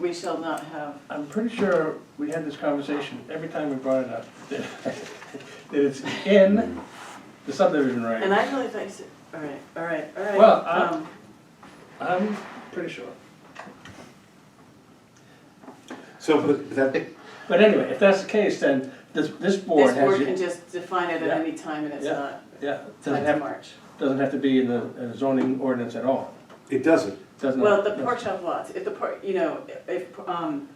We shall not have, I'm pretty sure we had this conversation every time we brought it up, that that it's in the subdivision and right. I really think, so- all right, all right, all right. Well, I- um, I'm pretty sure. So, but that, But anyway, if that's the case, then this, this board This has, board can you- just define it Yeah. at any time and it's Yeah. not, yeah, not doesn't to have, March. doesn't have to be in the in the zoning ordinance at all. it doesn't. Doesn't. Well, the pork chop lots, if the pork, you know, if, um,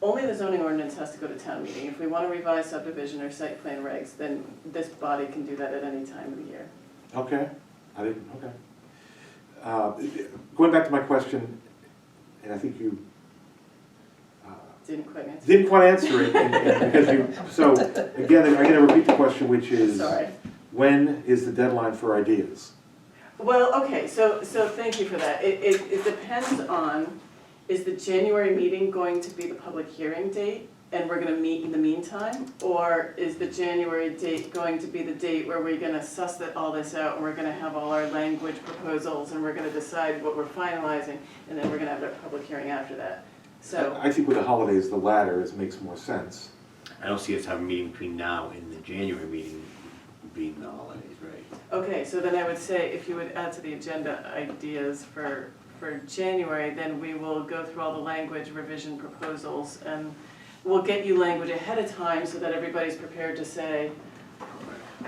only the zoning ordinance has to go to town meeting. If we want to revise subdivision or site plan regs, then this body can do that at any time of the year. Okay, I didn't, okay. Uh, Going back to my question, and I think you uh, Didn't quite answer. didn't quite answer it, and- and because you, so, again, I'm gonna repeat the question, which is, Sorry. when is the deadline for ideas? Well, okay, so, so thank you for that. It, it, it depends on, is the January meeting going to be the public hearing date? And we're gonna meet in the meantime? Or is the January date going to be the date where we're gonna suss that, all this out? And we're gonna have all our language proposals and we're gonna decide what we're finalizing? And then we're gonna have our public hearing after that. So, I think with the holidays, the latter is, makes more sense. I don't see us having a meeting between now and the January meeting being the holidays, right? okay, so then I would say if you would add to the agenda ideas for, for January, then we will go through all the language revision proposals and we'll get you language ahead of time so that everybody's prepared to say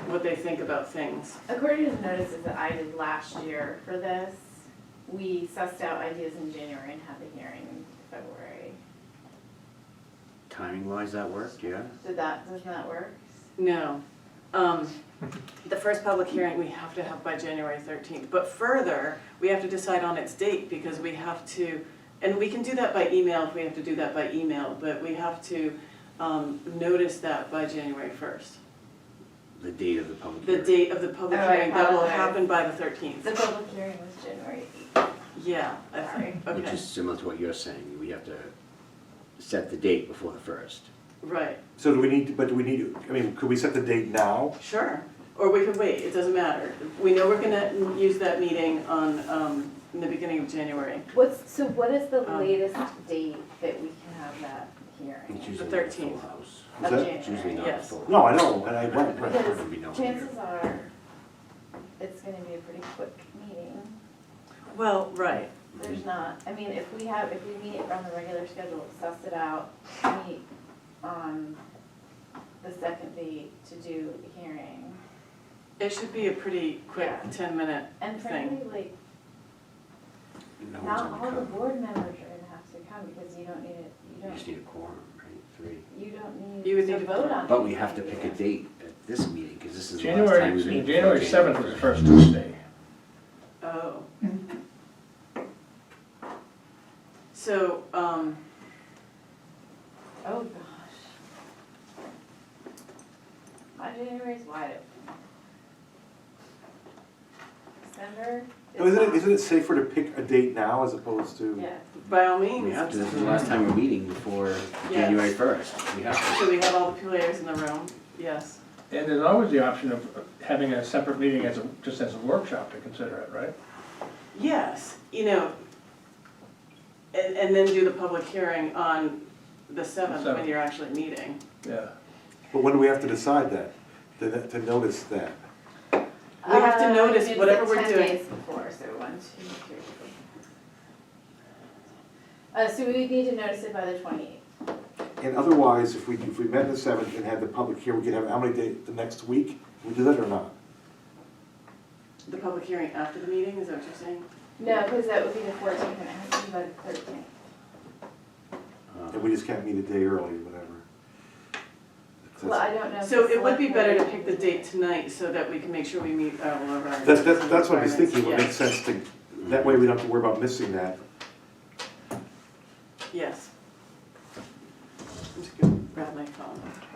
what they think about things. According to the notices that I did last year for this, we sussed out ideas in January and had the hearing in February. Timing wise, that worked, yeah? Did that, doesn't that work? No. Um, The first public hearing we have to have by January 13th. But further, we have to decide on its date because we have to, and we can do that by email if we have to do that by email, but we have to um, notice that by January 1st. The date of the public The hearing. date of the public Oh, I hearing, that will apologize. happen by the The 13th. public hearing was January eighth. Yeah, I think, Which okay, is similar to what you're saying, we have to set the date before the first. right, So do we need, to- but do we need, to- I mean, could we set the date now? sure. Or we could wait, it doesn't matter. We know we're gonna use that meeting on, um, in the beginning of January. What's, so what is the Um, latest date that we can have that hearing? It's usually not a full 13th. house. Is that- of January. It's usually not a Yes. full. No, I know, and I, right, right. It would be no year. Chances are, it's gonna be a pretty quick meeting. Well, right. There's Mm-hmm. not, I mean, if we have, if we meet on the regular schedule, suss it out, meet on the second date to do the hearing. It should be a pretty quick Yeah. ten-minute, And Thing. frankly, like, No one's Not all gonna the come. board members are gonna have to come because you don't need it, you You just don't, need a quorum, right, three. you don't You would need to need a vote on But we have to anything pick a either. date at this meeting, because this is the last time January, we meet. before January seventh is the first. first Tuesday. oh. Mm-hmm. So, um, Oh, gosh. My January's wide open. December is. Oh, Isn't it, not- isn't it safer to pick a date now as opposed to? Yeah, by all We means, have to, this is the last time we're meeting before January first, we have to. so we have all the players in the room, yes. And there's always the option of having a separate meeting as, a just as a workshop to consider it, right? Yes, you know, and, and then do the public hearing on the seventh when Seventh. you're actually meeting. Yeah. But when do we have to decide that, to, to notice that? We have to Uh, notice did it whatever we're ten doing. days before, so one, two, three. Uh, so we would need to notice it by the twenty-eighth. And otherwise, if we, if we met the seventh and had the public here, we could have how many days, the next week? Can we do that or not? The public hearing after the meeting, is that what you're saying? No, because that would be the fourteenth and it has to be by the thirteenth. uh, And we just can't meet a day early or whatever. Well, I don't know. if So the it would be select better to board- pick the date tonight so that we can make sure we meet all of our. That's, that's, that's what I was requirements. thinking, would make Yes, sense to, that way we don't have to worry about missing that. Yes. I'm just gonna grab my phone.